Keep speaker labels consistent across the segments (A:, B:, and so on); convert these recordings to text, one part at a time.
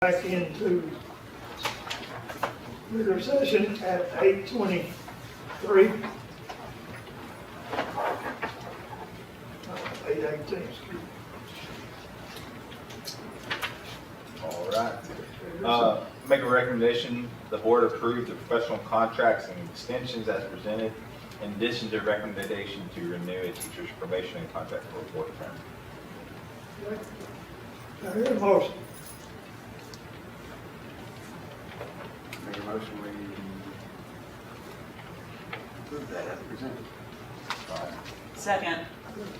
A: back into regular session at eight twenty-three. Uh, Eight eighteen, excuse me.
B: All right. Uh, Make a recommendation, the board approve the professional contracts and extensions as presented, in addition to recommendation to renew a teacher's probation and contract for a fourth term.
A: Now, here's a motion.
C: Make a motion, we approve that as presented.
B: All right.
D: Second.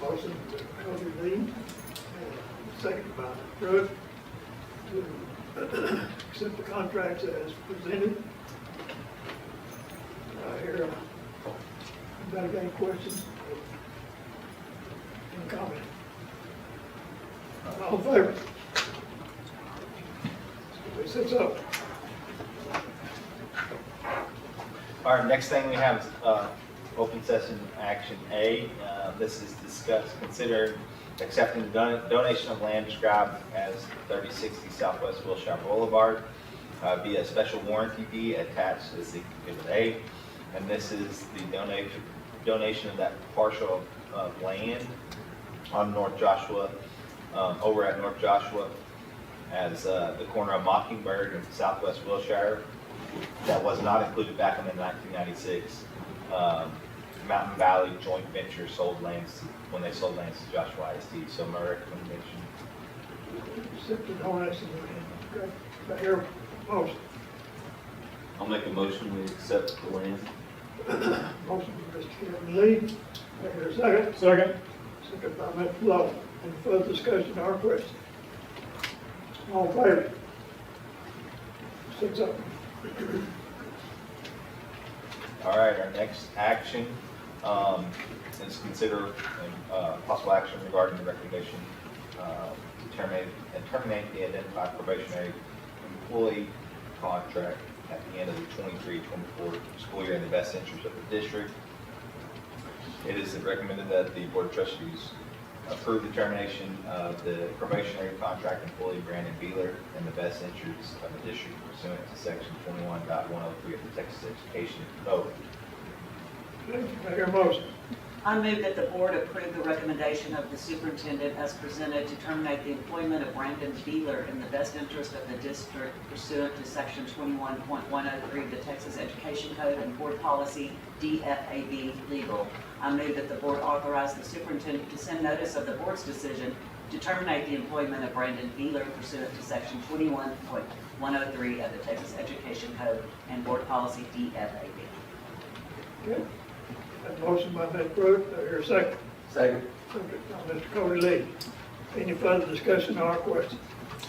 A: Motion to close the meeting, uh, second by Drew, to accept the contracts as presented. I hear, anybody got any questions? Any comment? All in favor? Everybody sits up.
B: All right, next thing we have is uh, open session action A. Uh, This is discuss, consider accepting the don- donation of land described as 3060 Southwest Wilshire Boulevard uh, via special warranty deed attached as Exhibit A. And this is the donation, donation of that parcel of land on North Joshua, um, over at North Joshua as uh, the corner of Mockingbird and Southwest Wilshire that was not included back in the 1996 um, Mountain Valley joint venture sold lands, when they sold lands to Joshua ISD. So my recommendation,
A: Accept the donation, okay? I hear, a motion,
E: I'll make a motion, we accept the land.
A: motion by Mr. Kevin Lee, I hear a second.
F: Second.
A: Second by Mr. Lovell. Any further discussion or question? All in favor? Six up.
B: all right, our next action um, is consider uh, possible action regarding the recommendation uh, to terminate, and terminate the identified probationary employee contract at the end of the 23-24 school year in the best interest of the district. It is recommended that the Board of Trustees approve the termination of the probationary contract employee Brandon Beeler in the best interests of the district pursuant to section 21.103 of the Texas Education Code.
A: Okay, I hear a motion.
D: I move that the board approve the recommendation of the superintendent as presented to terminate the employment of Brandon Beeler in the best interest of the district pursuant to section 21.103 of the Texas Education Code and board policy DFAB legal. I move that the board authorize the superintendent to send notice of the board's decision to terminate the employment of Brandon Beeler pursuant to section 21.103 of the Texas Education Code and board policy DFAB.
A: Okay. That motion by Ms. Brooks, I hear a second.
C: Second.
A: Second by Mr. Cody Lee. Any further discussion or question?